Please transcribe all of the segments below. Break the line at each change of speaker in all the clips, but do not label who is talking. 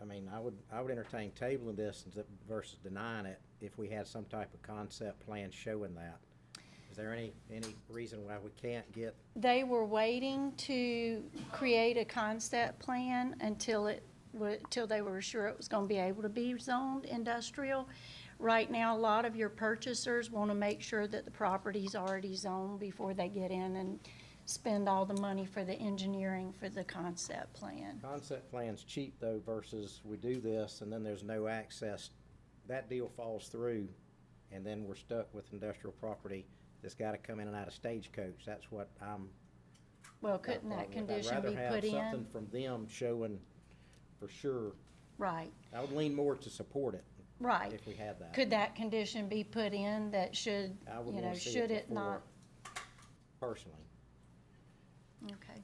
entertain, I would, I would entertain tabling this and th- versus denying it if we had some type of concept plan showing that. Is there any, any reason why we can't get,
They were waiting to create a concept plan until it, wa- till they were sure it was gonna be able to be zoned industrial. Right now, a lot of your purchasers wanna make sure that the property's already zoned before they get in and spend all the money for the engineering for the concept plan.
concept plans cheap though versus we do this and then there's no access? That deal falls through and then we're stuck with industrial property that's gotta come in and out of stagecoach. That's what I'm.
Well, couldn't that
problem with.
condition be put
I'd rather have something
in?
from them showing for sure.
Right,
I would lean more to support it
right.
if we had that.
Could that condition be put in that should,
I would
you know,
wanna see
should it
before,
not?
Personally.
Okay.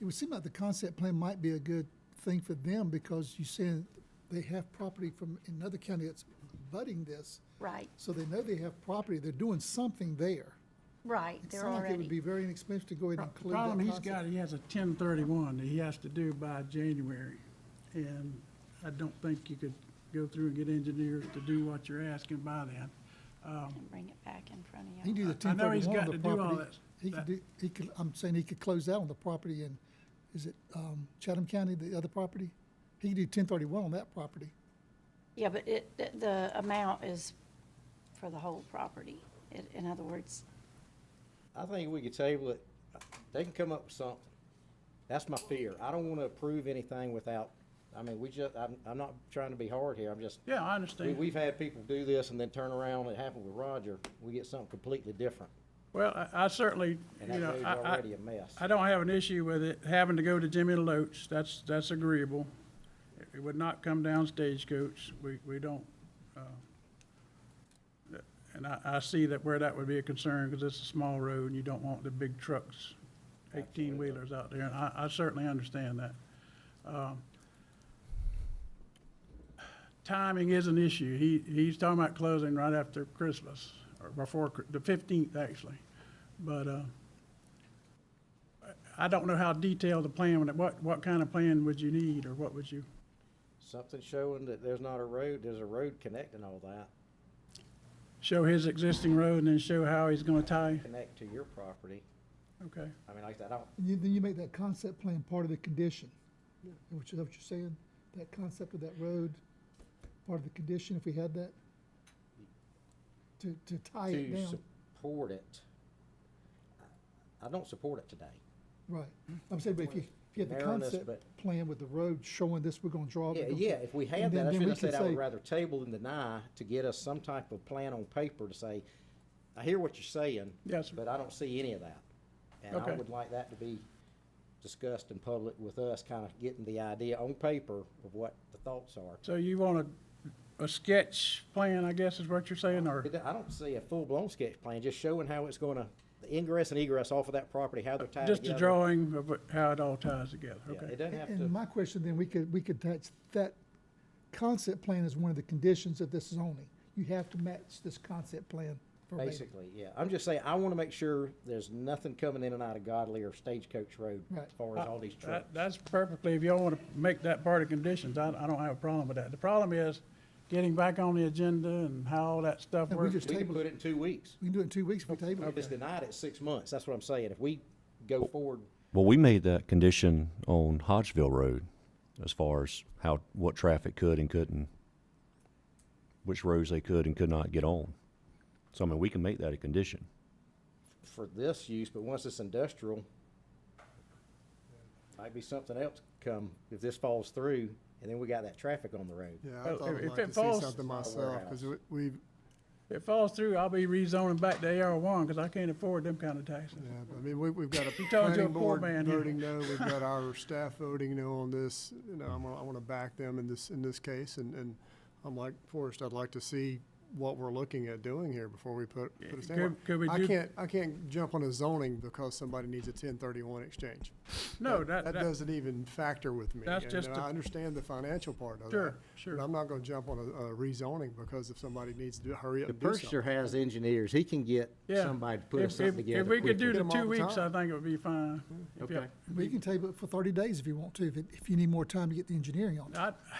It would seem like the concept plan might be a good thing for them because you said they have property from another county that's butting this.
Right,
So they know they have property, they're doing something there.
right,
It
they're
sounds like
already.
It would be very inexpensive to go ahead and include that
Problem he's
concept.
got, he has a ten thirty-one that he has to do by January. And I don't think you could go through and get engineers to do what you're asking by then.
and bring it back in front
He can
of
do
you.
the
I
ten
know he's
thirty-one on the
got to do all
property.
this,
He could
but-
do, he could, I'm saying he could close out on the property in, is it, um, Chatham County, the other property? He could do ten thirty-one on that property.
Yeah, but it, the- the amount is for the whole property. In- In other words,
I think we could table it. They can come up with something. That's my fear. I don't want to approve anything without, I mean, we just, I'm, I'm not trying to be hard here. I'm just,
Yeah,
we,
I understand.
we've had people do this and then turn around. It happened with Roger. We get something completely different.
Well, I- I certainly,
And
you
that
know,
road's
I, I,
already a mess.
I don't have an issue with it having to go to Jimmy Loach. That's, that's agreeable. It- It would not come down Stagecoach. We, we don't, uh, and I, I see that where that would be a concern because it's a small road and you don't want the big trucks, eighteen wheelers out there. And I, I certainly understand that. Um, Timing is an issue. He, he's talking about closing right after Christmas or before, Chri- the fifteenth actually. But, uh, I don't know how detailed the plan, would- what, what kind of plan would you need, or what would you?
Something showing that there's not a road, there's a road connecting all that,
Show his existing road and then show how he's gonna tie?
connect to your property.
Okay.
I mean, like I said, I don't,
And you, then you make that concept plan part of the condition, which is what you're saying, that concept of that road, part of the condition, if we had that, to, to tie it
to
down,
support it. I- I don't support it today.
right. I'm saying, but if you, if you had the
Narrowness,
concept
but-
plan with the road showing this, we're gonna draw. it, we're
Yeah,
gonna-
yeah, if we had
and
that,
then-
that's what
then we
I said,
can
I would
say-
rather table than deny to get us some type of plan on paper to say, I hear what you're saying.
Yes, sir.
But I don't see any of that. And I
Okay.
would like that to be discussed in public with us, kind of getting the idea on paper of what the thoughts are.
So you want a, a sketch plan, I guess is what you're saying, or,
It- I don't see a full-blown sketch plan, just showing how it's gonna, the ingress and egress off of that property, how they're tied together.
just a drawing of what- how it all ties together,
Yeah, it
okay?
doesn't have
And
to,
my question then, we could, we could touch, that concept plan is one of the conditions of this zoning. You have to match this concept plan verbatim.
basically, yeah. I'm just saying, I wanna make sure there's nothing coming in and out of Godly or Stagecoach Road
Right.
as far as all these trucks.
That- That's perfectly, if y'all wanna make that part of conditions, I, I don't have a problem with that. The problem is getting back on the agenda and how all that stuff
And we
works.
just
We can
table it.
put it in two weeks.
We can do it in two weeks if we table it.
If it's denied at six months, that's what I'm saying. If we go forward,
Well, we made that condition on Hodgeville Road as far as how, what traffic could and couldn't, which roads they could and could not get on. So, I mean, we can make that a condition.
for this use, but once it's industrial, might be something else come if this falls through, and then we got that traffic on the road.
Yeah,
Well,
I thought
Oh, if-
I'd
if
like
it
to see
falls-
something
Not a
myself, because
warehouse.
we,
If it falls through, I'll be rezoning back to AR one, cause I can't afford them kind of taxes.
yeah, I mean, we, we've got a
you're a
planning
poor
board
man here.
voting no, we've got our staff voting no on this, you know, I'm, gonna- I want to back them in this, in this case, and, and I'm like, Forrest, I'd like to see what we're looking at doing here before we put, put a stand.
could- could we
I
do-
can't, I can't jump on a zoning because somebody needs a ten thirty-one exchange.
No, that,
That
that,
doesn't even factor with me.
That's
and-
just
And
a-
I understand the financial part of it.
Sure, sure.
But I'm not going to jump on a, a rezoning because if somebody needs to do- hurry up
The
and do something.
purchaser has engineers. He can get
Yeah.
somebody to put
If-
us something
if-
together
If we could
quickly.
do the
Get 'em
two
all the
weeks, I
time.
think it would be fine. If you-
Okay.
We can table it for thirty days if you want to, if, it- if you need more time to get the engineering on it.
I,